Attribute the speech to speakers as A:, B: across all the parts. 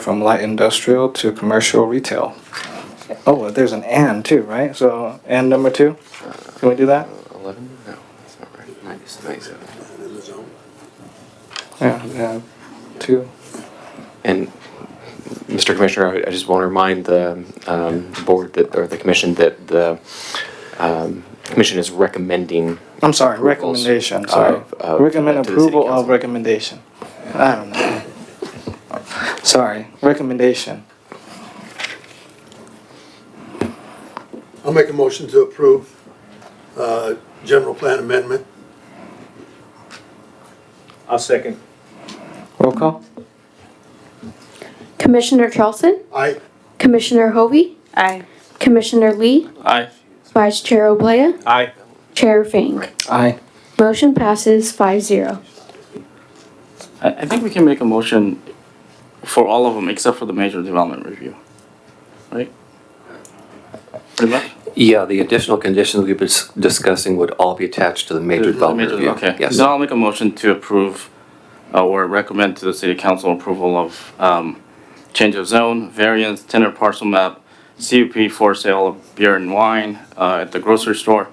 A: from light industrial to commercial retail. Oh, well, there's an and too, right? So and number two, can we do that?
B: 11? No, that's not right. 97.
A: Yeah, yeah, two.
B: And, Mr. Commissioner, I- I just want to remind the um, board that, or the commission, that the um, commission is recommending.
A: I'm sorry,
B: approvals
A: recommendation, sorry.
B: of- of-
A: Recommend
B: to the city
A: approval of
B: council.
A: recommendation. I don't know. Sorry, recommendation.
C: I'll make a motion to approve uh, general plan amendment.
D: I'll second.
A: Roll call?
E: Commissioner Charleston?
C: I,
E: Commissioner Hovey?
F: Aye.
E: Commissioner Lee?
D: Aye.
E: Vice Chair Oblea?
D: Aye.
E: Chair Fink?
A: Aye.
E: Motion passes five zero.
G: I, I think we can make a motion for all of them except for the major development review, right? Pretty much?
B: Yeah, the additional conditions we've been discussing would all be attached to the major
G: The major- Okay, then I'll make a motion to approve uh, or recommend to the city council approval of um, change of zone, variance, tenor parcel map, CUP for sale of beer and wine uh, at the grocery store,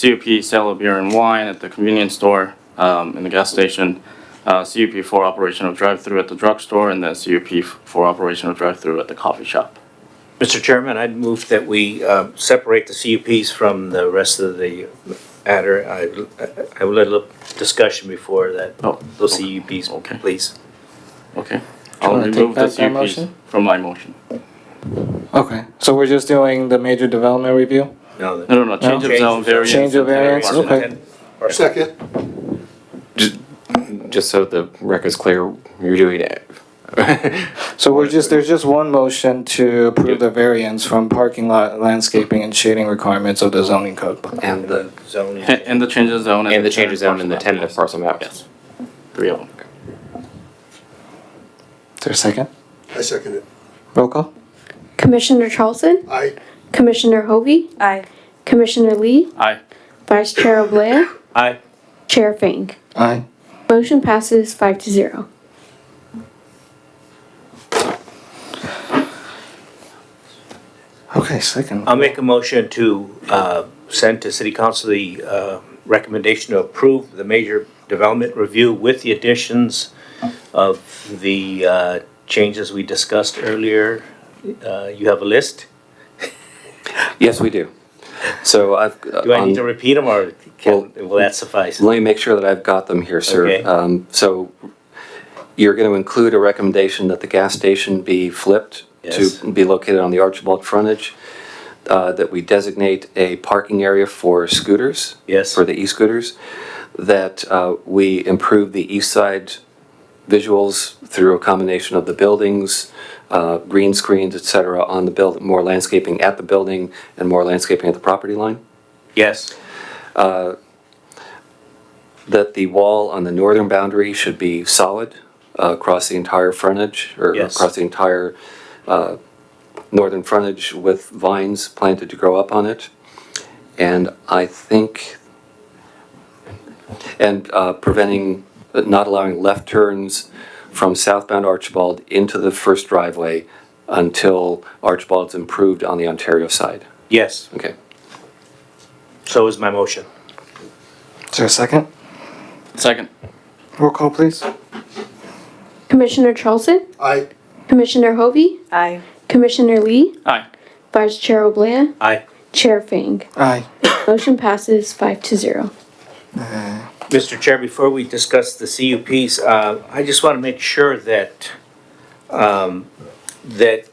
G: CUP sale of beer and wine at the convenience store, um, in the gas station, uh, CUP for operation of drive-through at the drugstore, and then CUP for operation of drive-through at the coffee shop.
D: Mr. Chairman, I'd move that we uh, separate the CUPs from the rest of the adder. I I would let a little discussion before that,
G: Oh,
D: those
G: okay.
D: CUPs,
G: Okay.
D: please.
G: Okay.
A: you
G: I'll
A: wanna take
G: remove the
A: back that
G: CUPs
A: motion?
G: from my motion.
A: Okay, so we're just doing the major development review?
D: No,
G: No,
D: the-
G: no, no, change of
D: Change
G: zone,
D: of zone.
G: variance.
A: Change of
G: and tenor
A: variance,
G: parcel map.
A: okay.
C: second,
B: Just so the record's clear, you're doing it.
A: So we're just, there's just one motion to approve the variance from parking lot landscaping and shading requirements of the zoning code.
B: And the,
D: zoning.
G: And and the change of zone.
B: and the change
G: tenant
B: of zone and the
G: parcel map.
B: tentative parcel map.
G: Yes. Three of them.
A: Is there a second?
C: I second it.
A: Roll call?
E: Commissioner Charleston?
C: I,
E: Commissioner Hovey?
F: Aye.
E: Commissioner Lee?
G: Aye.
E: Vice Chair Oblea?
D: Aye.
E: Chair Fink?
A: Aye.
E: Motion passes five to zero.
A: Okay, second.
D: I'll make a motion to uh, send to City Council the uh, recommendation to approve the major development review with the additions of the uh, changes we discussed earlier. Uh, You have a list?
B: Yes, we do. So I've. uh,
D: Do I need to
B: on-
D: repeat them, or can, will that suffice?
B: Let me make sure that I've got them here, sir.
D: Okay.
B: Um, So you're going to include a recommendation that the gas station be flipped
D: Yes.
B: to be located on the Archibald frontage, uh, that we designate a parking area for scooters.
D: Yes.
B: For the e-scooters, that uh, we improve the east side visuals through a combination of the buildings, uh, green screens, et cetera, on the build, more landscaping at the building and more landscaping at the property line.
D: Yes,
B: that the wall on the northern boundary should be solid uh, across the entire frontage, or
D: Yes.
B: across the entire uh, northern frontage with vines planted to grow up on it. And I think, and uh, preventing, uh, not allowing left turns from southbound Archibald into the first driveway until Archibald's improved on the Ontario side.
D: yes,
B: Okay.
D: so is my motion.
A: Is there a second?
G: Second.
A: Roll call, please.
E: Commissioner Charleston?
C: I,
E: Commissioner Hovey?
F: Aye.
E: Commissioner Lee?
G: Aye.
E: Vice Chair Oblea?
D: Aye.
E: Chair Fink?
A: Aye.
E: Motion passes five to zero.
A: Uh,
D: Mr. Chair, before we discuss the CUPs, uh, I just want to make sure that, um, that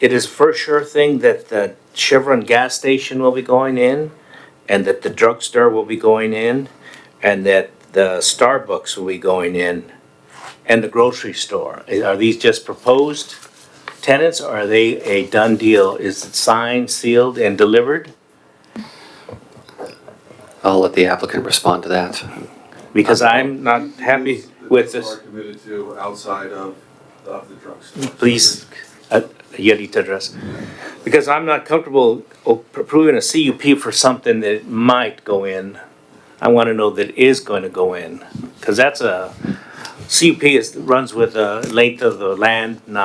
D: it is for sure thing that the Chevron gas station will be going in, and that the drugstore will be going in, and that the Starbucks will be going in, and the grocery store. Are these just proposed tenants, or are they a done deal? Is it signed, sealed, and delivered?
B: I'll let the applicant respond to that.
D: Because I'm not happy with this.
H: Are committed to outside of, of the drugstore.
D: please, uh, you need to address. Because I'm not comfortable approving a CUP for something that might go in. I want to know that is going to go in, because that's a, CUP is, runs with the length of the land, not